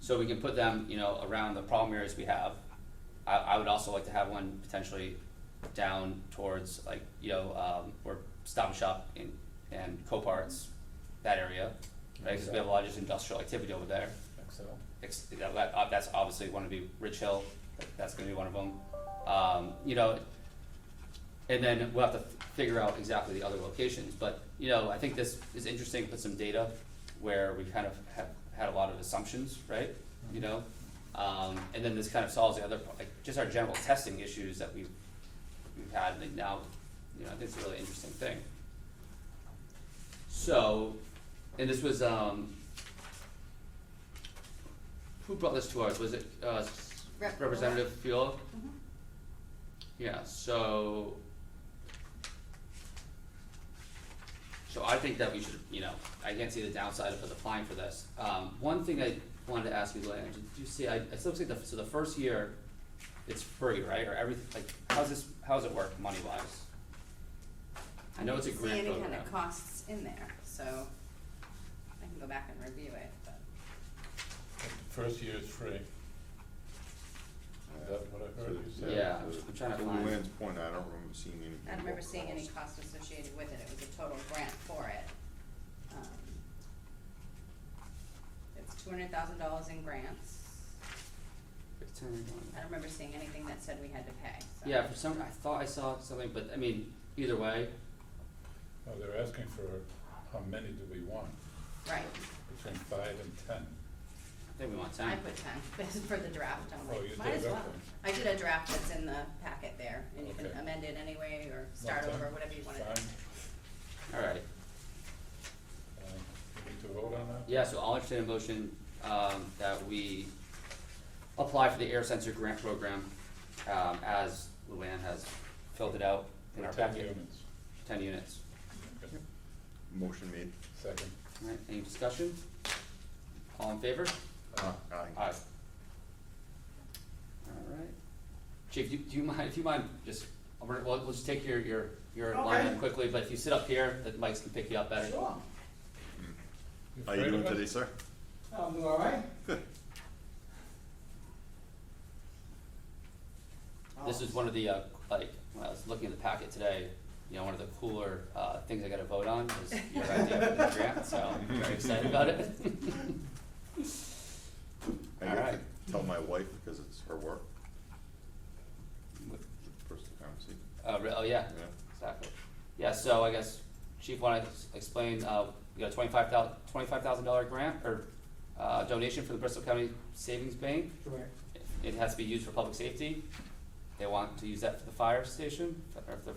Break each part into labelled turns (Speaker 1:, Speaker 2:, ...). Speaker 1: So we can put them, you know, around the problem areas we have. I, I would also like to have one potentially down towards like, you know, um, where Stop and Shop and, and Coparts, that area, right? Cause we have a lot of just industrial activity over there.
Speaker 2: Excel.
Speaker 1: Ex- that- that- uh, that's obviously one to be Rich Hill, that's gonna be one of them. Um, you know, and then we'll have to f- figure out exactly the other locations, but, you know, I think this is interesting, put some data where we kind of have had a lot of assumptions, right? You know, um, and then this kind of solves the other, pro- like, just our general testing issues that we've, we've had, and now, you know, I think it's a really interesting thing. So, and this was, um, who brought this to us? Was it uh, s-
Speaker 3: Rep.
Speaker 1: Representative Field?
Speaker 3: Mhm.
Speaker 1: Yeah, so. So I think that we should, you know, I can't see the downside of us applying for this. Um, one thing I wanted to ask you, Luann, did you see, I, it looks like the, so the first year, it's free, right, or everything, like, how's this, how's it work money wise? I know it's a grant
Speaker 3: See any kind
Speaker 1: program.
Speaker 3: of costs in there, so I can go back and review it, but
Speaker 2: First year is free. Is that what I heard you say?
Speaker 1: Yeah, I'm trying to
Speaker 4: To
Speaker 1: find-
Speaker 4: Luann's point, I don't remember seeing any.
Speaker 3: I don't remember
Speaker 4: real
Speaker 3: seeing any
Speaker 4: cost.
Speaker 3: cost associated with it, it was a total grant for it. Um, It's two hundred thousand dollars in grants, I don't remember seeing anything that said we had to pay, so.
Speaker 1: Yeah, for some, I thought I saw something, but I mean, either way,
Speaker 2: No, they're asking for how many do we want,
Speaker 3: Right,
Speaker 2: between five and ten.
Speaker 1: I think we want ten.
Speaker 3: I put ten, this is for the draft, I'm
Speaker 2: Oh, you
Speaker 3: like, might
Speaker 2: did
Speaker 3: as
Speaker 2: that
Speaker 3: well.
Speaker 2: one.
Speaker 3: I did a draft that's in the packet there, and you can
Speaker 2: Okay.
Speaker 3: amend it anyway, or start
Speaker 2: Not
Speaker 3: over,
Speaker 2: 10?
Speaker 3: whatever you wanna do.
Speaker 2: Fine.
Speaker 1: Alright,
Speaker 2: Um, we Need to vote on that?
Speaker 1: yeah, so I'll entertain a motion, um, that we apply for the air sensor grant program, um, as Luann has filled it out in
Speaker 2: For
Speaker 1: our
Speaker 2: ten
Speaker 1: packet,
Speaker 2: units.
Speaker 1: ten units.
Speaker 2: Okay.
Speaker 4: Motion made.
Speaker 2: Second.
Speaker 1: Alright, any discussion? All in favor? Aye. Alright. Chief, do, do you mind, if you mind, just, I'll bring- we'll, we'll just take your, your, your line up
Speaker 5: Okay.
Speaker 1: quickly, but if you sit up here, the mics can pick you up better.
Speaker 5: Sure.
Speaker 4: How you
Speaker 2: afraid
Speaker 4: doing
Speaker 2: of it?
Speaker 4: today, sir?
Speaker 5: I'm doing all right.
Speaker 4: Good.
Speaker 1: This is one of the, uh, like, when I was looking at the packet today, you know, one of the cooler, uh, things I gotta vote on is your idea for the grant, so I'm very excited about it.
Speaker 4: I got to
Speaker 1: Alright.
Speaker 4: tell my wife because it's her work. First conversation,
Speaker 1: Uh, re- oh, yeah,
Speaker 4: yeah.
Speaker 1: exactly. Yeah, so I guess Chief wanna s- explain, uh, you got a twenty-five thou- twenty-five thousand dollar grant or, uh, donation for the Bristol County Savings Bank.
Speaker 5: Correct.
Speaker 1: It has to be used for public safety. They want to use that for the fire station, or the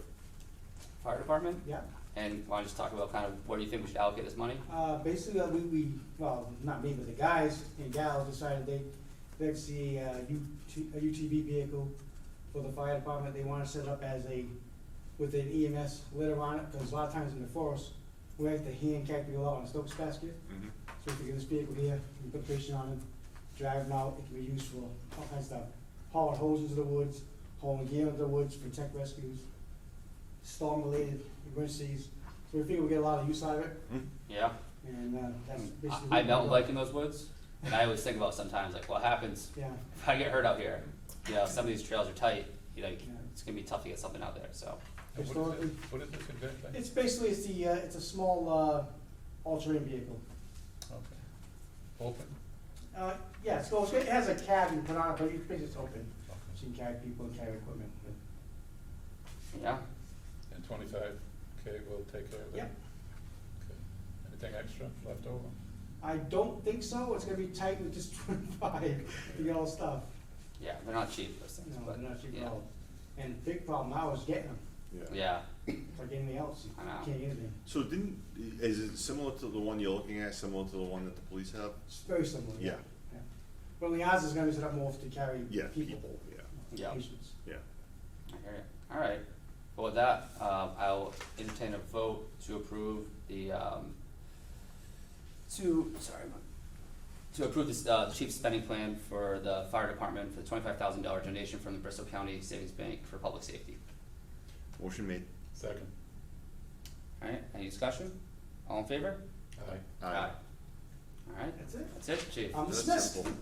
Speaker 1: fire department.
Speaker 5: Yeah.
Speaker 1: And wanna just talk about kind of where you think we should allocate this money?
Speaker 5: Uh, basically, uh, we, we, well, not me, but the guys and gals decided they, they'd see a UT, a UTV vehicle for the fire department. They wanna set up as a, with an E EMS litter on it, cause a lot of times in the forest, we have to hand carry people out on a stokes basket.
Speaker 4: Mhm.
Speaker 1: Mm-hmm.
Speaker 5: So if you get this vehicle here, you put a patient on it, drive it out, it can be used for all kinds of stuff. Hauling hoses into the woods, hauling gear into the woods, protect rescues, storm-related emergencies. So we figure we get a lot of use out of it,
Speaker 4: Mhm.
Speaker 1: Yeah.
Speaker 5: and uh, that's basically.
Speaker 1: Mm. I, I
Speaker 5: what
Speaker 1: don't
Speaker 5: we
Speaker 1: like
Speaker 5: do.
Speaker 1: in those woods, and I always think about sometimes like what happens
Speaker 5: Yeah,
Speaker 1: if I get hurt out here. You know, some of these trails are tight. You know, it's gonna be tough to get something out there. So
Speaker 2: And What is
Speaker 5: Historically-
Speaker 2: it, what is this exactly?
Speaker 5: it's basically, it's the, uh, it's a small uh, all-terrain vehicle.
Speaker 2: Okay. Open?
Speaker 5: Uh, yeah, it's, it's- it has a cab you put on it, but it's basically it's open, so
Speaker 2: Okay.
Speaker 5: you can carry people and carry equipment. but-
Speaker 1: yeah,
Speaker 2: And twenty-five K will take care of that?
Speaker 5: Yep.
Speaker 2: Okay. Anything extra left over?
Speaker 5: I don't think so, it's gonna be tight with just twenty-five to get all the stuff.
Speaker 1: yeah, they're not cheap those things,
Speaker 5: No,
Speaker 1: but
Speaker 5: they're not cheap
Speaker 1: yeah,
Speaker 5: at all. And the big problem now is getting them,
Speaker 1: yeah,
Speaker 5: it's like anything else, you
Speaker 1: I know.
Speaker 5: can't get anything.
Speaker 4: So didn't, is it similar to the one you're looking at, similar to the one that the police have?
Speaker 5: It's very similar, yeah.
Speaker 4: Yeah.
Speaker 5: Yeah. But only ours is gonna be set up more to carry
Speaker 4: Yeah,
Speaker 5: people,
Speaker 4: people, yeah,
Speaker 1: Yeah.
Speaker 5: patients.
Speaker 4: yeah.
Speaker 1: I hear you. All right. Well, with that, um, I'll entertain a vote to approve the um, to sorry, my- to approve this uh, chief spending plan for the fire department for the twenty-five thousand dollar donation from the Bristol County Savings Bank for public safety.
Speaker 4: Motion made.
Speaker 2: Second?
Speaker 1: Alright, any discussion? All in favor?
Speaker 2: Aye.
Speaker 1: Alright,
Speaker 5: That's it?
Speaker 1: that's it, chief.
Speaker 5: I'm
Speaker 4: That's
Speaker 5: dismissed.
Speaker 4: simple.